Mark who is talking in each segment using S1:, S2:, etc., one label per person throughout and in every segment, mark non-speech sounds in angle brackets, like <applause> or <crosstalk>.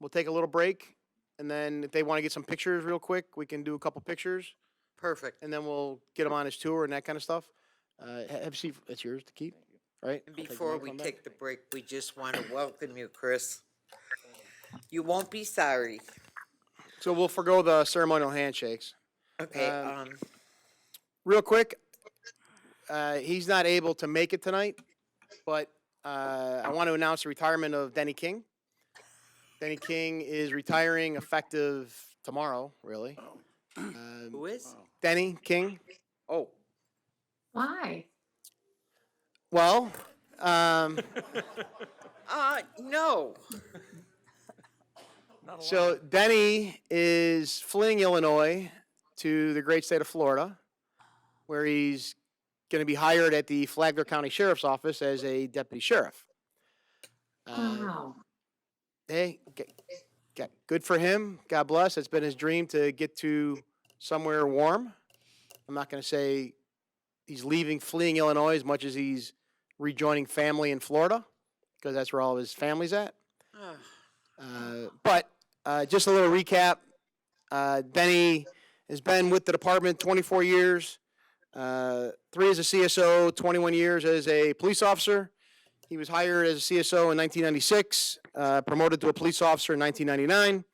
S1: We'll take a little break, and then if they want to get some pictures real quick, we can do a couple pictures,
S2: Perfect.
S1: and then we'll get him on his tour and that kind of stuff. Uh, ha- have Steve, it's yours to keep, right?
S2: And
S1: I'll take
S2: Before
S1: mine,
S2: we
S1: come back.
S2: take the break, we just want to welcome you, Chris. You won't be sorry.
S1: So we'll forego the ceremonial handshakes.
S2: Okay,
S1: Um,
S2: um,
S1: real quick, uh, he's not able to make it tonight, but uh, I want to announce the retirement of Denny King. Denny King is retiring effective tomorrow, really. Um,
S2: who is?
S1: Denny King,
S2: Oh,
S3: Why?
S1: well, um,
S2: uh, no. <sighs>
S1: so Denny is fleeing Illinois to the great state of Florida, where he's going to be hired at the Flagler County Sheriff's Office as a deputy sheriff. Uh,
S3: Wow.
S1: hey, g- g- good for him. God bless. It's been his dream to get to somewhere warm. I'm not going to say he's leaving, fleeing Illinois as much as he's rejoining family in Florida, because that's where all of his family's at.
S2: Ah,
S1: Uh, but uh, just a little recap. Uh, Benny has been with the department 24 years, uh, three as a CSO, 21 years as a police officer. He was hired as a CSO in 1996, uh, promoted to a police officer in 1999.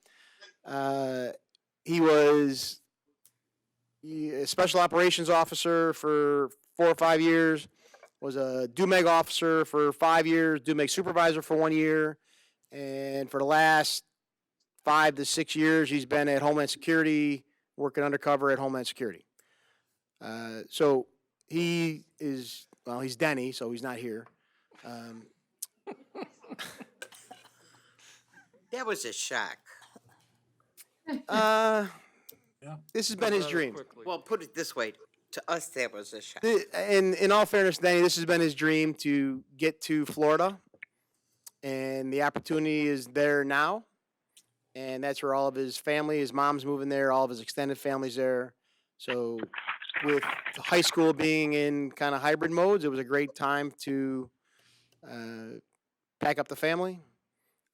S1: Uh, he was a special operations officer for four or five years, was a DUMEG officer for five years, DUMEG supervisor for one year, and for the last five to six years, he's been at Homeland Security, working undercover at Homeland Security. Uh, so he is, well, he's Denny, so he's not here. Um,
S2: That was a shock.
S1: uh,
S4: Yeah.
S1: This has been his dream.
S2: Well, put it this way, to us, that was a shock.
S1: Th- In, in all fairness, Denny, this has been his dream to get to Florida. And the opportunity is there now. And that's where all of his family, his mom's moving there, all of his extended family's there. So with high school being in kind of hybrid modes, it was a great time to uh, pack up the family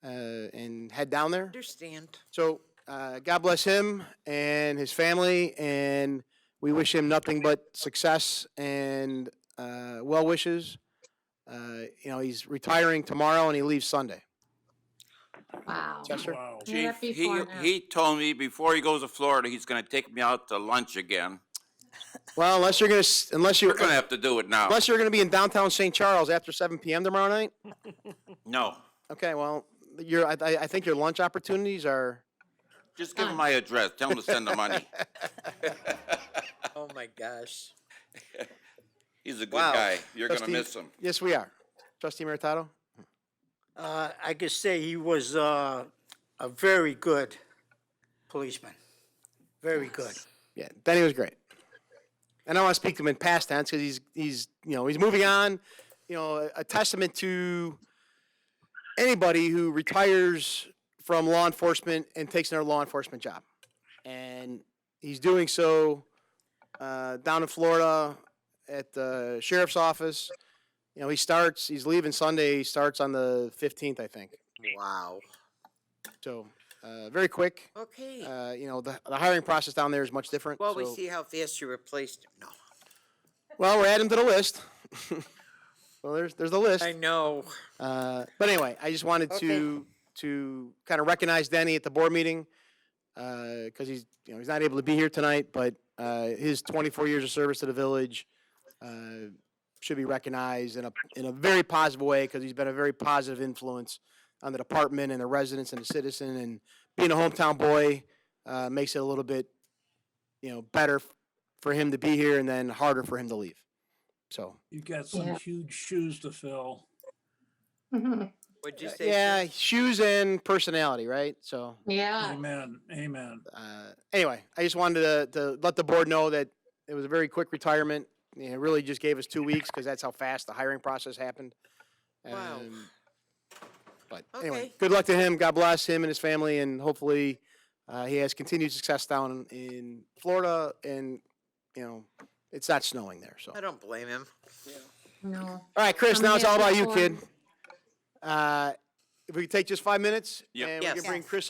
S1: uh, and head down there.
S2: Understand.
S1: So uh, God bless him and his family, and we wish him nothing but success and uh, well wishes. Uh, you know, he's retiring tomorrow and he leaves Sunday.
S3: Wow.
S1: Chester?
S4: Wow.
S3: Yeah,
S5: Chief,
S3: that'd be
S5: he,
S3: fun, yeah.
S5: he told me before he goes to Florida, he's gonna take me out to lunch again.
S1: Well, unless you're gonna s- unless you're
S5: We're gonna have to do it now.
S1: unless you're gonna be in downtown St. Charles after 7 p.m. tomorrow night.
S5: No,
S1: Okay, well, your I, I I think your lunch opportunities are.
S5: just give him my address. Tell him to send the money.
S2: Oh, my gosh.
S5: He's a good
S2: Wow.
S5: guy. You're gonna
S1: Trustee-
S5: miss him.
S1: Yes, we are. Trustee Meritato.
S6: Uh, I could say he was uh, a very good policeman, very good.
S1: Yeah, Denny was great. And I want to speak to him in past tense because he's he's you know he's moving on. You know, a- a testament to anybody who retires from law enforcement and takes another law enforcement job, and he's doing so uh, down in Florida at the sheriff's office. You know, he starts. He's leaving Sunday. He starts on the fifteenth, I think.
S2: Wow.
S1: So uh, very quick.
S2: Okay.
S1: Uh, you know, the, the hiring process down there is much different.
S2: Well, we
S1: so-
S2: see how fast you replaced him. No.
S1: Well, we're adding to the list. <laughs> well, there's there's the list.
S2: I know.
S1: Uh, but anyway, I just wanted
S2: Okay.
S1: to to kind of recognize Denny at the board meeting because he's you know he's not able to be here tonight, but uh, his 24 years of service to the village uh, should be recognized in a in a very positive way because he's been a very positive influence on the department and the residents and the citizen. And being a hometown boy uh, makes it a little bit you know better f- for him to be here and then harder for him to leave. So
S4: You've got some
S3: Yeah.
S4: huge shoes to fill.
S2: What'd you
S1: uh,
S2: say?
S1: yeah,
S2: Sue?
S1: shoes and personality, right? So.
S3: <laughs> Yeah.
S4: Amen. Amen.
S1: uh, anyway, I just wanted to, to let the board know that it was a very quick retirement. You know, It really just gave us two weeks because that's how fast the hiring process happened.
S2: Wow.
S1: Um, But anyway,
S2: Okay.
S1: good luck to him. God bless him and his family, and hopefully uh, he has continued success down in Florida. And you know, it's not snowing there, so.
S2: I don't blame him.
S3: No.
S1: All right, Chris.
S3: I'm
S1: Now it's
S3: here
S1: all about you,
S3: for-
S1: kid. Uh, if we could take just five minutes,
S5: Yep.
S1: and we
S2: Yes.
S1: can bring
S2: Yes.
S1: Chris